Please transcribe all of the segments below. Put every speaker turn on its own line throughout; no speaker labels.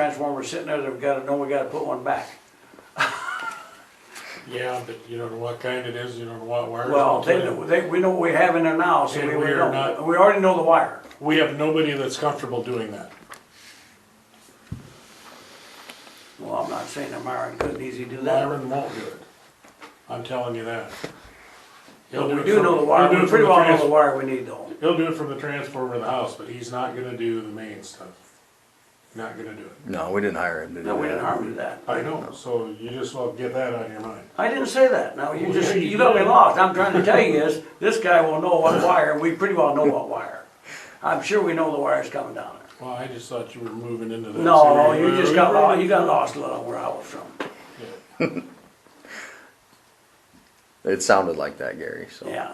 transformer sitting there that we gotta know we gotta put one back.
Yeah, but you don't know what kind it is, you don't know what wires.
Well,
it's
they,
in.
know- they, we know what we have in there now, so
And
we,
we
we
are
know,
not-
we already know the wire.
We have nobody that's comfortable doing that.
Well, I'm not saying that Myron couldn't easy do that.
Myron won't do it. I'm telling you that. He'll
But we
it
do
from-
know the wire,
he'll do
we
it
pretty
from the
well know
trans-
the wire we need though.
He'll do it from the transformer of the house, but he's not gonna do the main stuff. Not gonna do it.
No, we didn't hire him to do
No, we
that.
didn't harm you that.
I know, so you just well get that out of your mind.
I didn't say that. Now, you
Well,
just,
yeah, you
you got me
did.
lost. I'm trying to tell you is, this guy will know what wire, we pretty well know what wire. I'm sure we know the wire's coming down there.
Well, I just thought you were moving into that.
No,
serious-
you just got lost, you got lost a little where I was from.
Yeah.
It sounded like that, Gary. So
Yeah.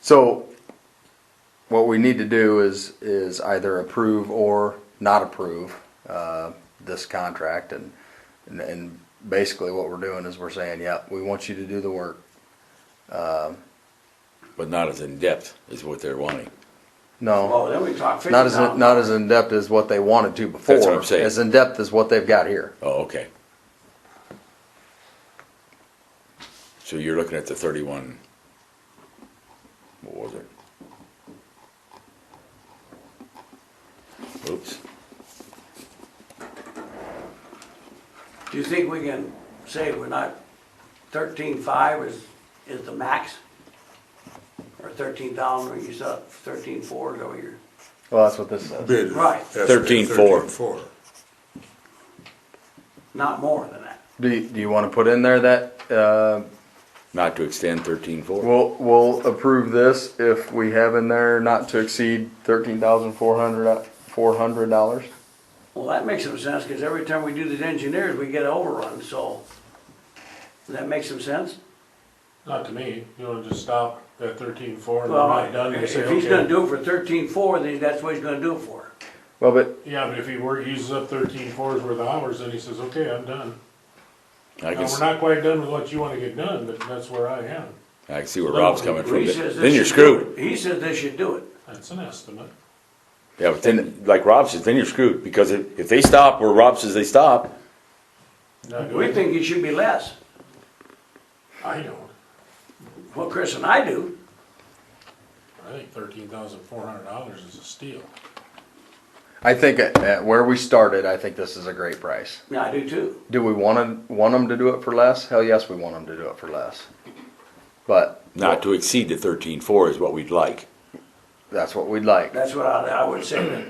So what we need to do is, is either approve or not approve, uh, this contract and, and- and basically what we're doing is we're saying, yep, we want you to do the work.
but not as in-depth as what they're wanting.
No,
Well, Oh, then we talked fifty
not as,
thousand.
not as in-depth as what they wanted to before.
That's what I'm saying.
As in-depth as what they've got here.
Oh, okay. So you're looking at the thirty-one, what was it? Oops,
Do you think we can say we're not, thirteen-five is, is the max? Or thirteen thousand, you said thirteen-four is over here.
Well, that's what this says.
bid. is
Right.
estimated
13,400.
13,400.
not more than that.
Do, you- do you wanna put in there that, uh,
not to extend thirteen-four?
We'll, we'll approve this if we have in there not to exceed thirteen thousand four hundred, uh, four hundred dollars.
Well, that makes some sense, because every time we do these engineers, we get overrun, so. Does that make some sense?
Not to me. You wanna just stop at thirteen four and we're
Well,
not done and
if
say,
if he's gonna
okay.
do it for thirteen-four, then that's what he's gonna do it for.
Well, but
Yeah, but if he wor uses up thirteen fours worth of hours, then he says, okay, I'm done.
I
Now,
can,
we're
s-
not quite done with what you wanna get done, but that's where I am.
I can see where
No,
Rob's coming from,
He says
then
this
you're
should do
screwed.
it. He says they should do it.
That's an estimate.
Yeah, but then, like Rob says, then you're screwed, because if, if they stop where Rob says they stop,
Now, do
We think it should be less.
I don't.
Well, Chris and I do.
I think thirteen thousand four hundred dollars is a steal.
I think at, at where we started, I think this is a great price.
Yeah, I do too.
Do we wanna, want them to do it for less? Hell yes, we want them to do it for less. But
not to exceed the thirteen-four is what we'd like.
that's what we'd like.
That's what I, I would say. that.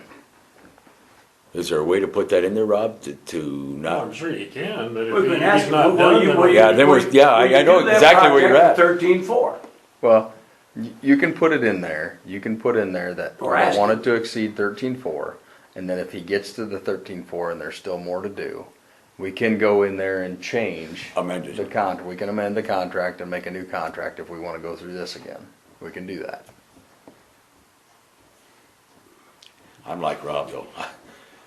Is there a way to put that in there, Rob, to, to
Well,
not?
I'm sure you can, but
We've been
if he's
asking,
not
well,
done,
you,
then
well, you.
Yeah, then we're- yeah, I-
when you
I know
do that
exactly where you're
project,
at.
Thirteen-four.
Well, y- you can put it in there, you can put in there that
Or
I
ask
want it to exceed thirteen four, and then if he gets to the thirteen four and there's still more to do, we can go in there and change.
Amend
The
it.
con, we can amend the contract and make a new contract if we wanna go through this again, we can do that.
I'm like Rob though.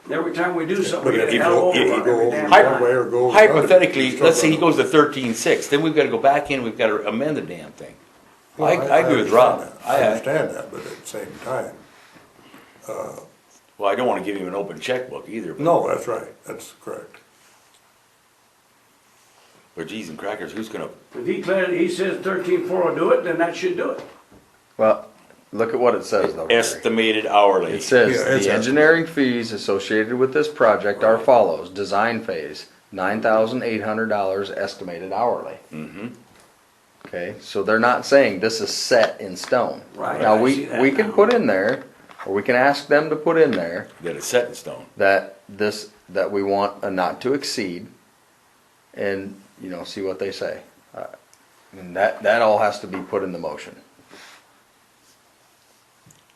Every time we do something,
But
we
if
get a
you
hell
go,
of
if you
overrun
go
every
over
damn
one
time.
way or go. the other, you
Hypothetically,
still
let's say he
gotta-
goes to thirteen-six, then we've gotta go back in, we've gotta amend the damn thing. I, I agree with Rob.
understand that. I
I,
understand that, but at the same time,
well, I don't wanna give him an open checkbook either, but,
no, that's right, that's correct.
but geez and crackers, who's gonna,
If he declared, he says thirteen-four will do it, then that should do it.
Well, look at what it says though, Gary.
estimated hourly?
It says,
Yeah, it's
the
a-
engineering fees associated with this project are follows, design phase, nine thousand eight hundred dollars estimated hourly.
Mm-hmm.
Okay, so they're not saying this is set in stone.
Right, I
Now,
see
we,
that
we can
now.
put in there, or we can ask them to put in there,
That is set in stone.
that this, that we want a not to exceed, and, you know, see what they say. Uh, And that, that all has to be put in the motion.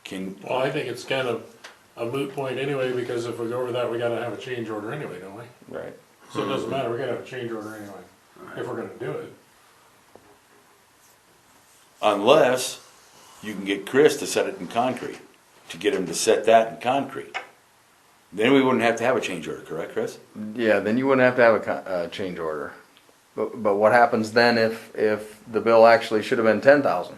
Can,
Well, I think it's kind of a moot point anyway, because if we go over that, we gotta have a change order anyway, don't we?
Right.
So it doesn't matter, we gotta have a change order anyway, if we're gonna do it.
unless you can get Chris to set it in concrete, to get him to set that in concrete. Then we wouldn't have to have a change order, correct, Chris?
Yeah, then you wouldn't have to have a co- uh, change order. But, but what happens then if, if the bill actually should have been ten thousand?